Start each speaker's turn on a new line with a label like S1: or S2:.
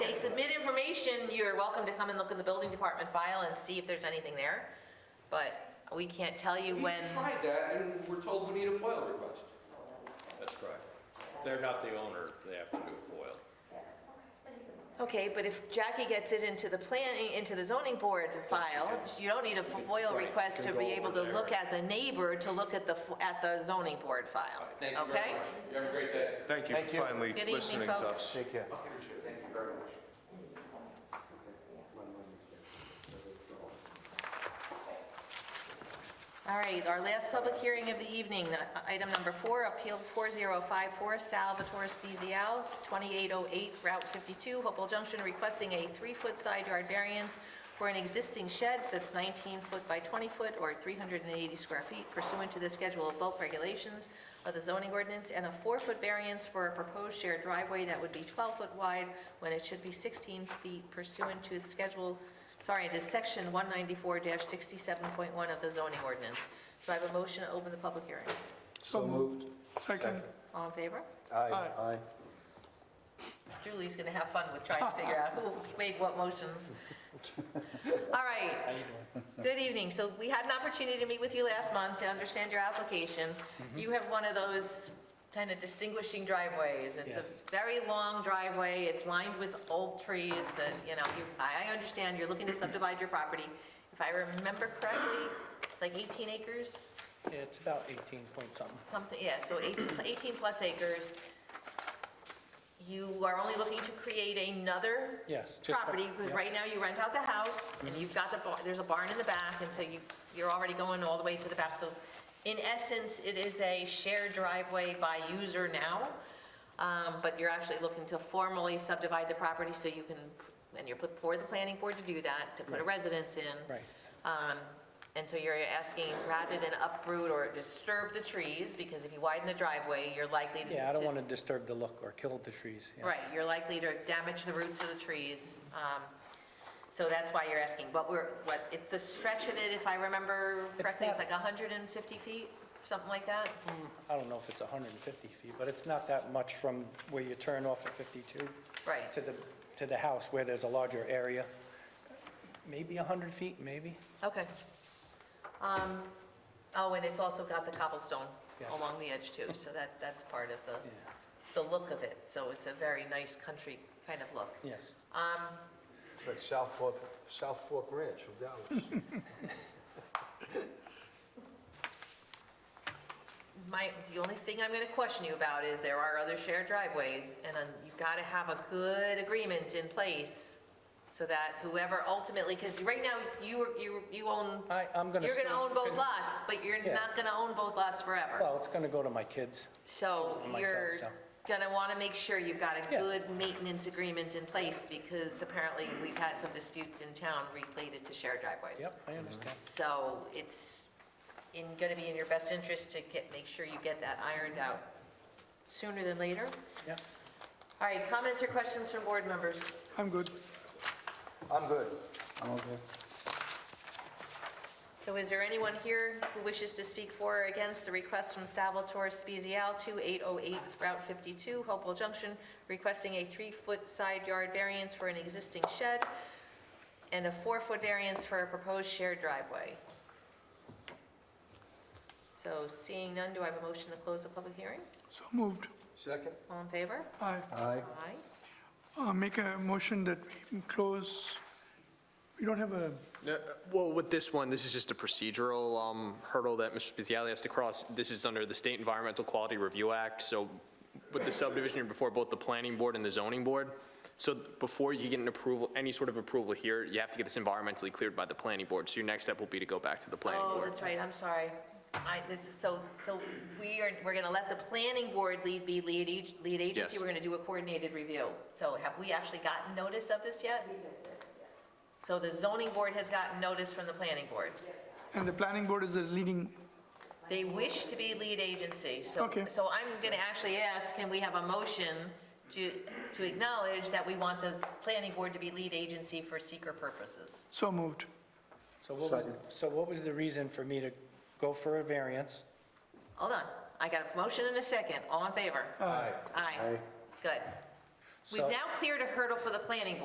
S1: submit information, you're welcome to come and look in the building department file and see if there's anything there. But we can't tell you
S2: We
S1: when,
S2: tried that and we're told we need a FOIL request.
S3: That's correct. They're not the owner, they have to do a FOIL.
S1: okay, but if Jackie gets it into the planning, into the zoning board file, you don't need a FOIL request to be able to look as a neighbor to look at the, f- at the zoning board file,
S2: Thank you very
S1: okay?
S2: much. You have a great day.
S4: Thank you for finally
S1: Good evening,
S4: listening to
S1: folks.
S4: us.
S5: Take care.
S2: Thank you very much.
S1: All right, our last public hearing of the evening, uh, item number four, Appeal 4054, Salvatore Spezial, 2808 Route 52, Hopewell Junction, requesting a three-foot side yard variance for an existing shed that's 19 foot by 20 foot, or 380 square feet pursuant to the Schedule of Bulk Regulations of the zoning ordinance, and a four-foot variance for a proposed shared driveway that would be 12 foot wide when it should be 16 feet pursuant to the Schedule Sorry, it is section 194-67.1 of the zoning ordinance. Do I have a motion to open the public hearing?
S5: So moved.
S6: Second.
S1: All in favor?
S5: Aye. Aye.
S1: Julie's going to have fun with trying to figure out who made what motions. All right. Good evening. So we had an opportunity to meet with you last month to understand your application. You have one of those kind of distinguishing driveways. It's a very long driveway. It's lined with old trees that, you know, you, I I understand you're looking to subdivide your property. If I remember correctly, it's like 18 acres?
S7: Yeah, It's about 18 point something.
S1: Something, yeah, so 18 18 plus acres. You are only looking to create another
S7: Yes, just for-
S1: property, because
S7: yeah.
S1: right now you rent out the house, and you've got the, bar- there's a barn in the back, and so you, you're already going all the way to the back. So in essence, it is a shared driveway by user now, um, but you're actually looking to formally subdivide the property so you can, and you're put for the planning board to do that, to put a residence in.
S7: Right.
S1: Um, And so you're asking, rather than uproot or disturb the trees, because if you widen the driveway, you're likely to.
S7: Yeah, I don't want to disturb the look or kill the trees. yeah.
S1: Right, you're likely to damage the roots of the trees. um, So that's why you're asking, but we're, what, it- the stretch of it, if I remember correctly, it's
S7: not-
S1: like 150 feet, something like that?
S7: I don't know if it's 150 feet, but it's not that much from where you turn off at 52.
S1: Right.
S7: To the, to the house where there's a larger area. Maybe 100 feet, maybe?
S1: Okay. Um, Oh, and it's also got the cobblestone
S7: Yes.
S1: along the edge too, so that, that's part of the,
S7: Yeah,
S1: the look of it. So it's a very nice country kind of look.
S7: yes.
S5: Like South Fork, South Fork Ranch from Dallas.
S1: My, the only thing I'm gonna question you about is there are other shared driveways, and um, you've gotta have a good agreement in place so that whoever ultimately, because right now, you, are- you, you own,
S7: I, I'm going to.
S1: you're gonna own both lots, but you're
S7: Yeah.
S1: not gonna own both lots forever.
S7: Well, it's going to go to my kids.
S1: So
S7: myself,
S1: you're
S7: so.
S1: gonna wanna make sure you've got a
S7: Yeah.
S1: good maintenance agreement in place, because apparently we've had some disputes in town related to shared driveways.
S7: Yep, I understand.
S1: So it's in, gonna be in your best interest to get, make sure you get that ironed out sooner than later.
S7: Yeah.
S1: All right, comments or questions from board members?
S6: I'm good.
S5: I'm good.
S1: So is there anyone here who wishes to speak for or against the request from Salvatore Spezial, 2808 Route 52, Hopewell Junction, requesting a three-foot side yard variance for an existing shed and a four-foot variance for a proposed shared driveway? So seeing none, do I have a motion to close the public hearing?
S6: So moved.
S5: Second?
S1: All in favor?
S6: Aye.
S5: Aye.
S1: Aye.
S6: Uh, Make a motion that we close. We don't have a,
S8: No, Well, with this one, this is just a procedural um, hurdle that Mr. Spezialy has to cross. This is under the State Environmental Quality Review Act, so with the subdivision, you're before both the planning board and the zoning board. So before you get an approval, any sort of approval here, you have to get this environmentally cleared by the planning board. So your next step will be to go back to the planning
S1: Oh,
S8: board.
S1: that's right, I'm sorry. I, this is, so, so we are, we're gonna let the planning board lead, be lead, ag- lead agency,
S8: Yes.
S1: we're gonna do a coordinated review. So have we actually gotten notice of this yet? So the zoning board has gotten notice from the planning board?
S6: and the planning board is the leading,
S1: They wish to be lead agency, so,
S6: Okay.
S1: so I'm gonna actually ask, can we have a motion to, to acknowledge that we want the planning board to be lead agency for seeker purposes?
S6: so moved.
S7: So what was, so what was the reason for me to go for a variance?
S1: Hold on, I got a motion and a second, all in favor? Aye. Aye, good. We've
S7: So-
S1: now cleared a hurdle for the planning board.